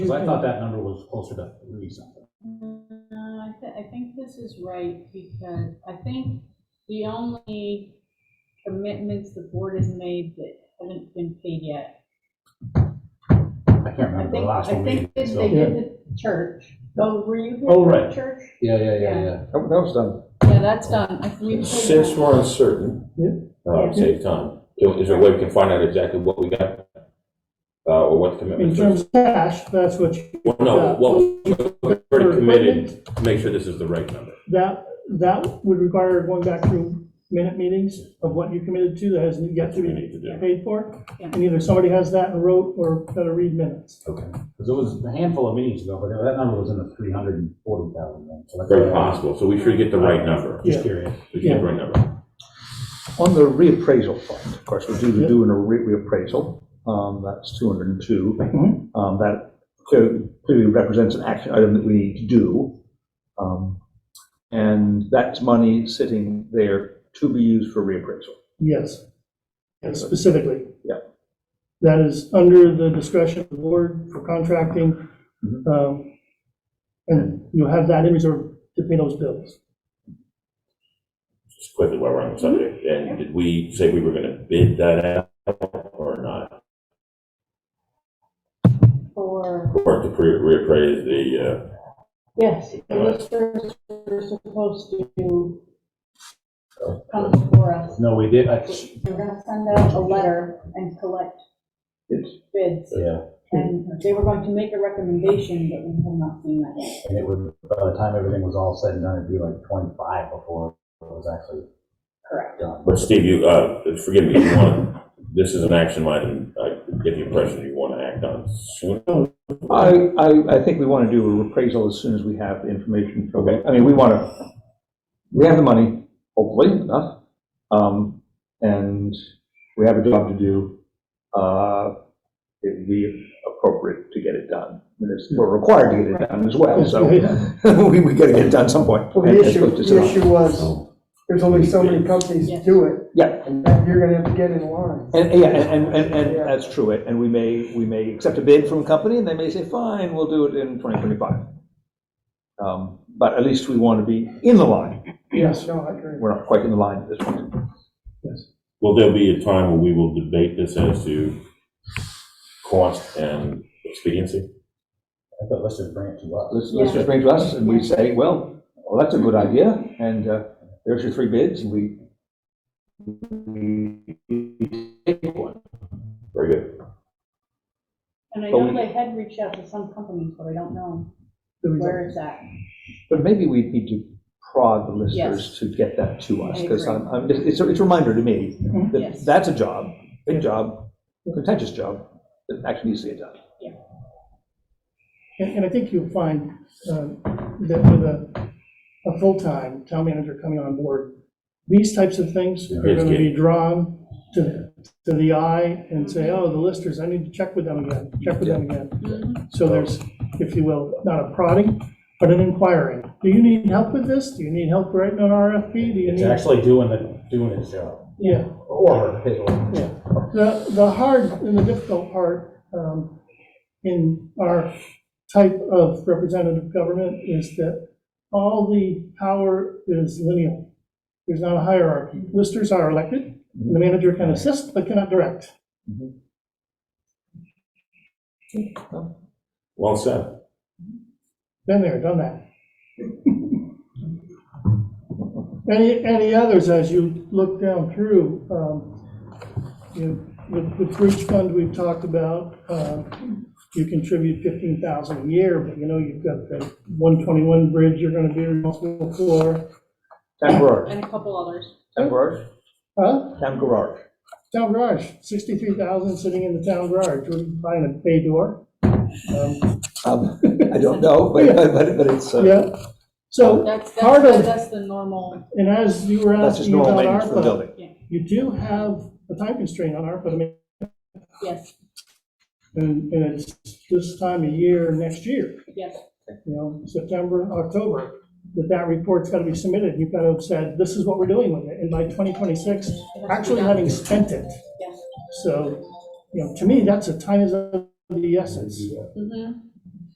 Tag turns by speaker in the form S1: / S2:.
S1: Because I thought that number was closer to three something.
S2: No, I thi- I think this is right, because I think the only commitments the board has made that haven't been paid yet.
S1: I can't
S2: I
S1: remember the
S2: think,
S1: last
S2: I
S1: one we
S2: think
S1: did,
S2: that
S1: so.
S2: they did the church, oh, were you here?
S1: Oh,
S2: for the
S1: right.
S2: Church?
S3: Yeah, yeah,
S2: Yeah.
S3: yeah, yeah.
S4: That that was done.
S2: Yeah, that's done, I think we paid
S5: Since
S2: that.
S5: we're uncertain, uh, save time, is there a way we can find out exactly what we got? Uh, or what the
S6: In
S5: commitment?
S6: terms of cash, that's what you,
S5: Well, no, what was already committed, to make sure this is the right number.
S6: that, that would require going back through minute meetings of what you committed to that has yet to
S5: We
S6: be
S5: need to do.
S6: paid for.
S2: Yeah.
S6: And either somebody has that in wrote or better read minutes.
S1: Okay. Because it was a handful of meetings ago, but that number was in the three hundred and forty thousand range. so that's
S5: Very
S1: why I was
S5: possible, so we should get the right number.
S1: Just
S6: Yeah.
S1: curious.
S5: We should get the right number.
S4: On the reappraisal fund, of course, we do the do a re- reappraisal, um, that's 202.
S6: Mhm.
S5: Mm-hmm.
S4: Um, That clearly clearly represents an action item that we need to do. Um, And that's money sitting there to be used for reappraisal.
S6: Yes. Yes, specifically.
S4: Yeah.
S6: That is under the discretion of the board for contracting.
S4: Mhm.
S6: um, And you have that in reserve to pay those bills.
S5: Just quickly while we're on the subject,
S6: Mm-hmm.
S5: and did we say we were gonna bid that out or not?
S2: For,
S5: Or to pre- reappraise the, uh,
S2: yes, the listers were supposed to come before us.
S1: No, we did, I,
S2: They're gonna send out a letter and collect
S4: It's-
S2: bids,
S1: yeah,
S2: and they were going to make a recommendation, but we have not seen that yet.
S1: and it was, by the time everything was all said and done, it'd be like twenty-five before it was actually
S2: Correct.
S1: done.
S5: uh, but Steve, you, uh, forgive me, you want, this is an action item, I get the impression you wanna act on soon.
S4: I, I, I think we want to do a reappraisal as soon as we have the information. from- I mean, we want to, we have the money, hopefully enough, um, and we have a job to do. Uh, It'd be appropriate to get it done. I mean, it's- We're required to get it done as well, so we, we got to get it done at some point.
S7: Well,
S4: And
S7: the
S4: it's
S7: issue,
S4: supposed to sit
S7: the
S4: on-
S7: issue was, there's only so many companies
S2: Yeah.
S7: that do it,
S4: Yeah,
S7: and then you're gonna have to get in line.
S4: and, yeah, and, and- and, and that's true, and we may, we may accept a bid from a company, and they may say, fine, we'll do it in 2025. Um, But at least we want to be in the line,
S6: Yes.
S7: No, I agree.
S4: we're not quite in the line at this point. Yes.
S5: Will there be a time where we will debate this as to cost and expediency?
S1: I thought, let's just bring it to us.
S4: Let's, let's just bring it to us, and we say, well, well, that's a good idea, and uh, there's your three bids, and we,
S5: Very good.
S2: And I
S4: But
S2: know
S4: we-
S2: they had reached out to some companies, but I don't know
S6: The result.
S2: where it's at.
S4: but maybe we need to prod the
S2: Yes.
S4: listeners to get that to us,
S2: I
S4: because
S2: agree. Mm-hmm.
S4: I'm, I'm- it's, it's a reminder to me that
S2: Yes.
S4: that's a job, big job, contentious job, that actually needs to get done.
S6: And, and I think you'll find um, that with a, a full-time town manager coming on board, these types of things are gonna be drawn to, to the eye and say, oh, the listers, I need to check with them again, check with them again. So there's, if you will, not a prodding, but an inquiring. Do you need help with this? Do you need help writing an RFP? Do you
S1: It's
S6: need?
S1: actually doing the, doing its job,
S6: Yeah.
S1: or his or-
S6: The, the hard and the difficult part um, in our type of representative government is that all the power is lineal. There's not a hierarchy. Listers are elected, and the manager can assist but cannot direct.
S5: Well said.
S6: Been there, done that. Any, any others as you look down through? um, you know, With, with bridge fund we've talked about, um, you contribute 15,000 a year, but you know, you've got the 121 bridge you're going to be responsible for.
S4: Town garage,
S2: And a couple others.
S4: town garage,
S6: Huh?
S4: town garage.
S6: Town garage, 63,000 sitting in the town garage, we're buying a bay door. Um,
S4: Um, I don't know, but, but, but it's, uh,
S6: Yeah, so,
S2: That's,
S6: Part
S2: that's,
S6: of-
S2: that's the normal,
S6: and as you were
S4: that's just
S6: asking
S4: normal
S6: about
S4: maintenance for the
S6: ARPA,
S4: building.
S6: You do have a time constraint on ARPA, I mean,
S2: yes,
S6: and, and it's this time of year, next year,
S2: yes.
S6: you know, September, October, that that report's gotta be submitted, you've gotta have said, this is what we're doing with it, and by twenty twenty-six,
S2: it has to be
S6: actually
S2: done.
S6: having spent it.
S2: Yes.
S6: So, you know, to me, that's a time is of the essence.
S2: Mhm.